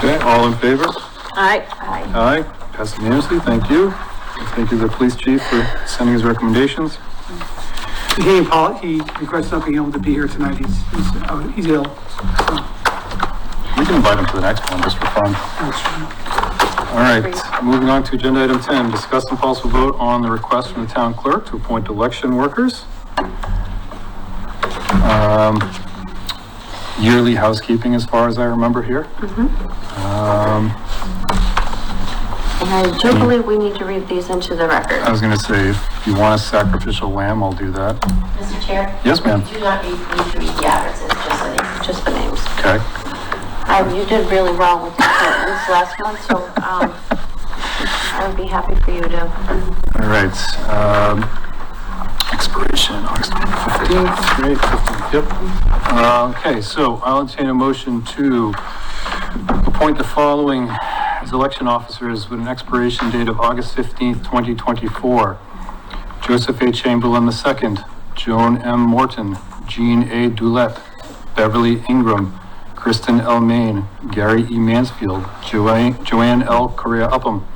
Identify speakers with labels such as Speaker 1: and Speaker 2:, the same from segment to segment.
Speaker 1: Okay, all in favor?
Speaker 2: Aye.
Speaker 1: Aye, passed unanimously, thank you. Thank you to the police chief for sending his recommendations.
Speaker 3: He, Paul, he regrets not being able to be here tonight. He's, he's, out- he's ill.
Speaker 1: We can invite him to the next one just for fun. All right, moving on to agenda item ten, discuss and possible vote on the request from the town clerk to appoint election workers. Um, Yearly housekeeping, as far as I remember here. Um,
Speaker 2: And I do believe we need to read these into the
Speaker 1: I
Speaker 2: record.
Speaker 1: was gonna say, if you want a sacrificial lamb, I'll do that.
Speaker 4: Mr. Chair?
Speaker 1: Yes, ma'am.
Speaker 4: You do not need need to read the addresses, just so they.
Speaker 2: Just the names.
Speaker 1: Okay,
Speaker 2: Um, you did really well with the appointments last month, so, um, I would be happy for you to,
Speaker 1: all right, um, expiration, August fifteenth, great, yep. Uh, okay, so I'll entertain a motion to appoint the following as election officers with an expiration date of August fifteenth, twenty twenty-four. Joseph A. Chamberlain II, Joan M. Morton, Jean A. Dulett, Beverly Ingram, Kristen L. Main, Gary E. Mansfield, Joanne Joanne L. Correa Upham,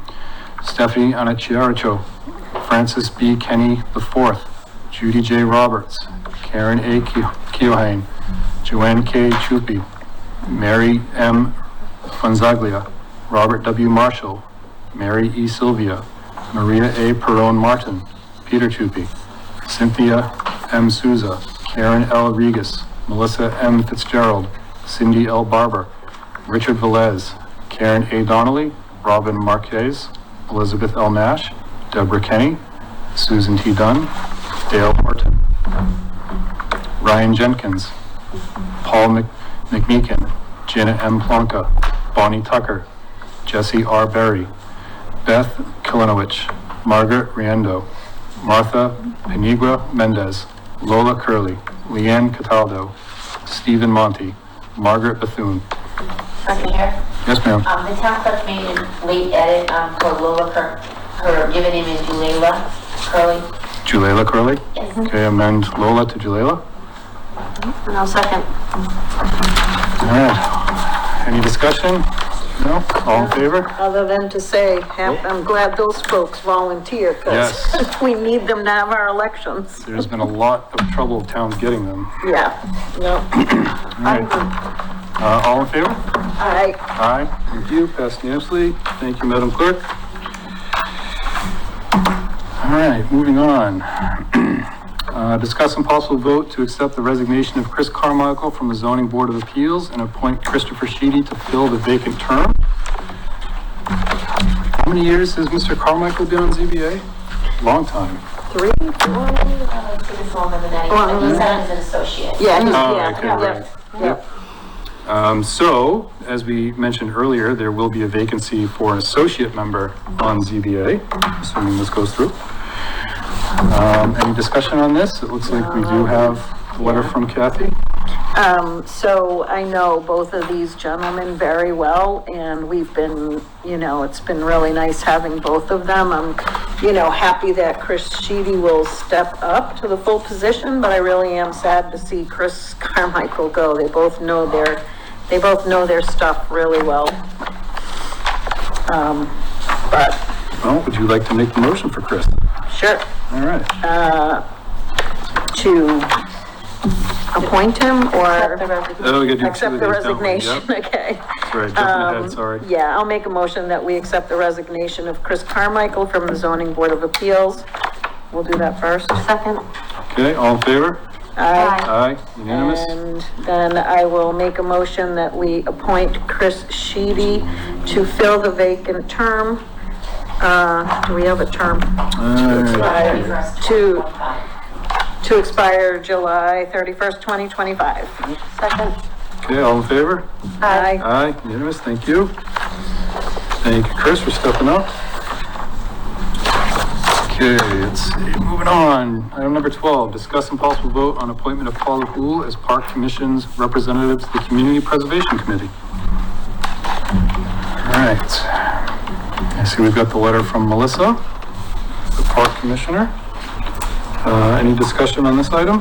Speaker 1: Stephanie Anachiaracho, Francis B. Kenny IV, Judy J. Roberts, Karen A. Keo- Keohane, Joanne K. Chupi, Mary M. Fonzaglia, Robert W. Marshall, Mary E. Sylvia, Maria A. Perone Martin, Peter Chupi, Cynthia M. Souza, Karen L. Regis, Melissa M. Fitzgerald, Cindy L. Barber, Richard Velez, Karen A. Donnelly, Robin Marquez, Elizabeth L. Nash, Deborah Kenny, Susan T. Dunn, Dale Horton, Ryan Jenkins, Paul Mc- McMeekin, Jenna M. Plonka, Bonnie Tucker, Jesse R. Berry, Beth Kilinowicz, Margaret Riendo, Martha Penigua Mendez, Lola Curley, Leanne Cataldo, Stephen Monty, Margaret Bethune.
Speaker 4: Mr. Chair?
Speaker 1: Yes, ma'am.
Speaker 4: Um, the town clerk made a late edit, um, for Lola, her, her given name is Julela Curly.
Speaker 1: Julela Curley?
Speaker 4: Yes.
Speaker 1: Okay, amend Lola to Julela.
Speaker 2: and I'll second.
Speaker 1: All right. Any discussion? No? All in favor?
Speaker 5: Other than to say, ha- I'm glad those folks volunteer, because
Speaker 1: Yes.
Speaker 5: we need them to have our elections.
Speaker 1: There's been a lot of trouble of towns getting them.
Speaker 5: Yeah, no,
Speaker 1: All right. Uh, all in favor?
Speaker 5: I,
Speaker 1: Aye, thank you, passed unanimously. Thank you, Madam Clerk. All right, moving on. Uh, Discuss and possible vote to accept the resignation of Chris Carmichael from the Zoning Board of Appeals and appoint Christopher Sheedy to fill the vacant term. How many years has Mr. Carmichael been on ZBA? Long time.
Speaker 5: three, four,
Speaker 4: Um, it's in the form of an edit, but he's not as an associate.
Speaker 5: yeah, he's-
Speaker 1: Oh,
Speaker 5: yeah,
Speaker 1: okay, right.
Speaker 5: yeah, yeah.
Speaker 1: Um, so, as we mentioned earlier, there will be a vacancy for an associate member on ZBA, assuming this goes through. Um, any discussion on this? It looks like we do have a letter from Kathy.
Speaker 5: Um, so I know both of these gentlemen very well, and we've been, you know, it's been really nice having both of them. I'm, you know, happy that Chris Sheedy will step up to the full position, but I really am sad to see Chris Carmichael go. They both know their, they both know their stuff really well. Um, but,
Speaker 1: Well, would you like to make the motion for Chris?
Speaker 5: sure,
Speaker 1: All right.
Speaker 5: to appoint him or
Speaker 1: Oh, we gotta do two of
Speaker 5: accept the
Speaker 1: these, don't we? Yep.
Speaker 5: resignation, okay?
Speaker 1: That's right, jumping ahead, sorry.
Speaker 5: Yeah, I'll make a motion that we accept the resignation of Chris Carmichael from the zoning board of appeals. We'll do that first.
Speaker 2: Second?
Speaker 1: Okay, all in favor?
Speaker 2: Aye.
Speaker 1: Aye, unanimous?
Speaker 5: And then I will make a motion that we appoint Chris Sheedy to fill the vacant term. Uh, do we have a term?
Speaker 1: All right.
Speaker 5: To, to expire July thirty-first, twenty twenty-five.
Speaker 2: Second?
Speaker 1: Okay, all in favor?
Speaker 5: Aye.
Speaker 1: Aye, unanimous, thank you. Thank you, Chris, for stepping up. Okay, let's see, moving on. Item number 12, discuss and possible vote on appointment of Paula Hool as Park Commission's representative to the Community Preservation Committee. All right. I see we've got the letter from Melissa, the Park Commissioner. Uh, Any discussion on this item?